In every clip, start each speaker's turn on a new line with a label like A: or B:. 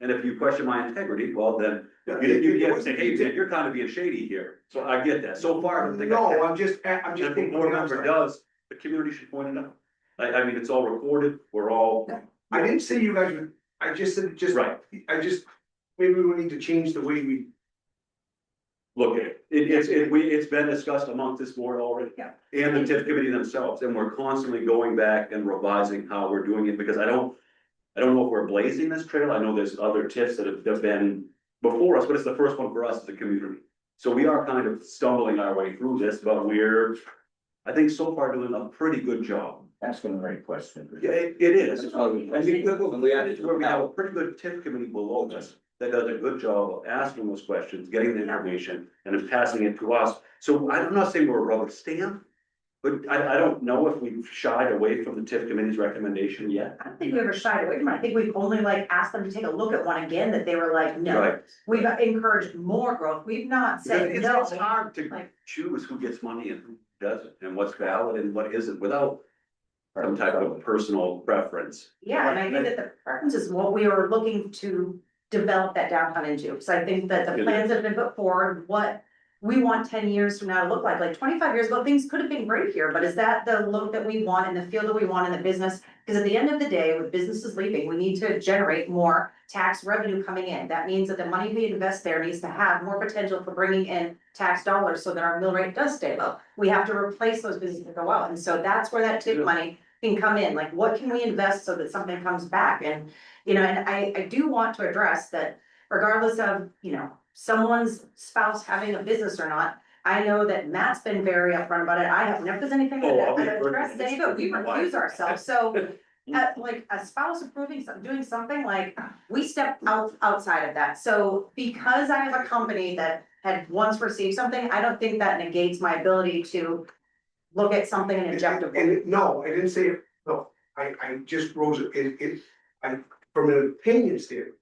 A: And if you question my integrity, well, then you
B: Yeah,
A: didn't, you
B: you-
A: can't say, hey,
B: you-
A: man, you're kind of being shady here. So I get that. So far, I don't think. I
B: No,
A: have.
B: I'm just, I'm
A: And
B: just
A: If a
B: thinking.
A: board member does, the community should point it out. I, I mean, it's all recorded. We're all,
B: I didn't say you guys, would- I just said, just,
A: right,
B: I just, maybe we need to change the way we.
A: look at it. It, it's, it, we, it's been discussed amongst this board already.
B: Yeah.
A: And the TIF committee themselves, and we're constantly going back and revising how we're doing it, because I don't, I don't know if we're blazing this trail. I know there's other TIFs that have- have been before us, but it's the first one for us as a community. So we are kind of stumbling our way through this, but we're, I think so far doing a pretty good job.
C: Asking the right question.
A: Yeah, it, it is.
C: That's all we-
A: I mean, look, look,
C: And we added to
A: where we have a
C: the
A: pretty good TIF committee below this that does a good job of asking those questions, getting the information, and then passing it to us. So I'm not saying we're a rubber stamp, but I, I don't know if we've shied away from the TIF committee's recommendation yet.
D: I don't think we ever shied away from it. I think we've only like asked them to take a look at one again that they were like, no.
A: Right.
D: We've encouraged more growth. We've not
A: Because
D: said
A: It's,
D: no.
A: it's hard to
D: like-
A: choose who gets money and who doesn't, and what's valid and what isn't, without some type of personal preference.
D: Yeah, and I think that the preference is what we were looking to develop that downtown into. So I think that the
A: It
D: plans that have been put forward, what we want ten years from now to look like, like twenty-five years ago, things could have been great here, but is that the look that we want and the feel that we want in the business? Because at the end of the day, with businesses leaving, we need to generate more tax revenue coming in. That means that the money we invest there needs to have more potential for bringing in tax dollars so that our mill rate does stay low. We have to replace those businesses that go out. And so that's where that tip
A: Yeah.
D: money can come in, like what can we invest so that something comes back and, you know, and I, I do want to address that regardless of, you know, someone's spouse having a business or not, I know that Matt's been very upfront about it, I have never done anything
A: Oh, I'll
D: that
A: be
D: that addressed
A: perfect.
D: any, but we refuse ourselves, so uh, like a spouse approving some, doing something like, we step out, outside of that, so because I have a company that had once received something, I don't think that negates my ability to look at something and inject it.
B: And, it- no, I didn't say, it. no, I, I just rose, it, it, I, from an opinion standpoint.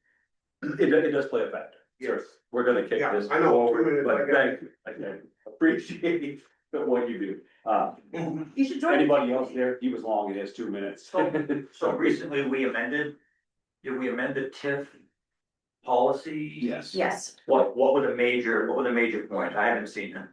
A: It, it does play a factor. Yes. We're gonna kick
B: Yeah,
A: this
B: I know,
A: forward,
B: two minutes, I
A: but
B: got
A: thank you, I I appreciate what you do. Uh,
B: Mm-hmm.
D: You should join.
A: anybody else there, he was long, it is two minutes.
E: So recently, we amended, did we amend the TIF policy?
C: Yes.
D: Yes,
E: What, what were the major, what were the major points? I haven't seen them.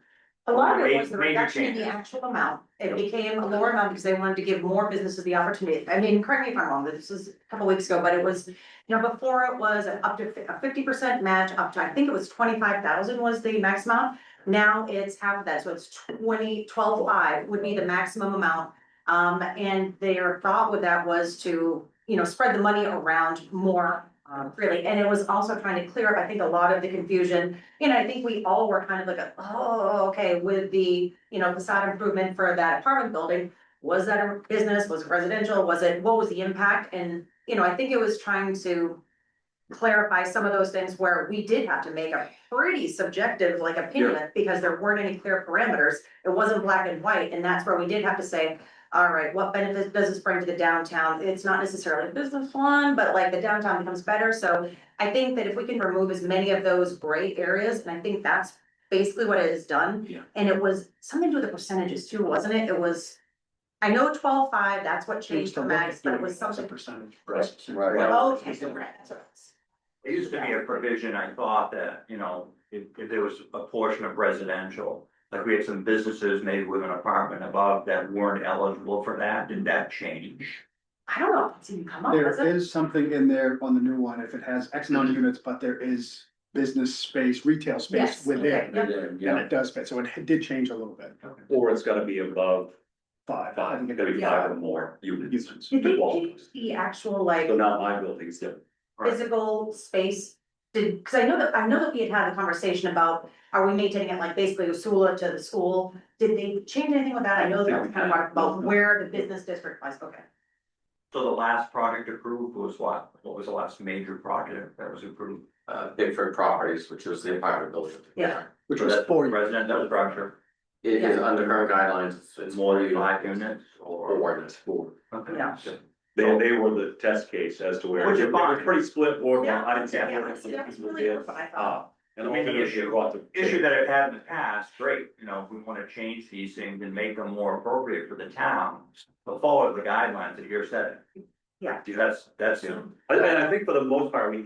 D: a lot of it was the
E: Major
D: reduction in the
E: changes.
D: actual amount, it became a lower amount because they wanted to give more businesses the opportunity, I mean, correct me if I'm wrong, this was a couple weeks ago, but it was. You know, before it was an up to fi- a fifty percent match up to, I think it was twenty-five thousand was the max amount, now it's half of that, so it's twenty, twelve-five would be the maximum amount. Um, and their thought with that was to, you know, spread the money around more, um, freely, and it was also trying to clear up, I think, a lot of the confusion And I think we all were kind of like, oh, okay, with the, you know, facade improvement for that apartment building. Was that a business? Was it residential? Was it, what was the impact? And, you know, I think it was trying to. Clarify some of those things where we did have to make a pretty subjective like opinion because there weren't any clear parameters. It wasn't black and white, and that's where we did have to say, all right, what benefit does this bring to the downtown? It's not necessarily a business one, but like the downtown becomes better, so. I think that if we can remove as many of those gray areas, and I think that's basically what it has done.
C: Yeah.
D: And it was something to do with the percentages too, wasn't it? It was, I know twelve five, that's what changed the max, but it was something.
B: Percentage.
C: Right. Right.
D: Oh, Okay, so right, that's what it was.
E: It used to be a provision, I thought that, you know, if, if there was a portion of residential, like we had some businesses maybe with an apartment above that weren't eligible for that, did that change?
D: I don't know, if it's even come up, is
F: There
D: it?
F: is something in there on the new one, if it has X amount of units, but there is business space, retail
D: Yes,
F: space
D: okay,
F: within.
D: yep.
F: And
C: Yeah.
F: it does fit, so it did change a little bit,
A: Or it's gotta be above
F: five. I
A: five,
F: think
A: it's
F: it-
A: gotta be five or more units.
F: Units.
D: Did they change the actual like
A: So now my building's different.
D: physical space? Did, cause I know that, I know that we had had a conversation about, are we maintaining it like basically Usula to the school? Did they change anything with that? I know that was kind of about where the business district was, okay.
E: So the last project approved was what? What was the last major project that was approved?
G: uh, Bigford Properties, which was the apartment building.
D: Yeah.
F: Which
E: So
F: was
E: that's
F: four,
E: Residential structure,
G: It is under current guidelines, it's- it's more than
E: five
G: five
E: units or?
G: or four.
E: Okay.
D: Yeah.
A: They, they were the test case as to where,
E: Which
A: it
E: is
A: was
E: fine.
A: pretty split board, well, I didn't see. Uh, Ah,
E: Yeah,
D: yeah, that's- that's really good, but I thought-
A: And
E: I mean, the
A: ultimately
E: issue-
A: brought the-
E: issue that I've had in the past, great, you know, if we wanna change these things and make them more appropriate for the town, but follow the guidelines that you're setting.
D: Yeah.
E: That's, that's.
A: I, I think for the most part, we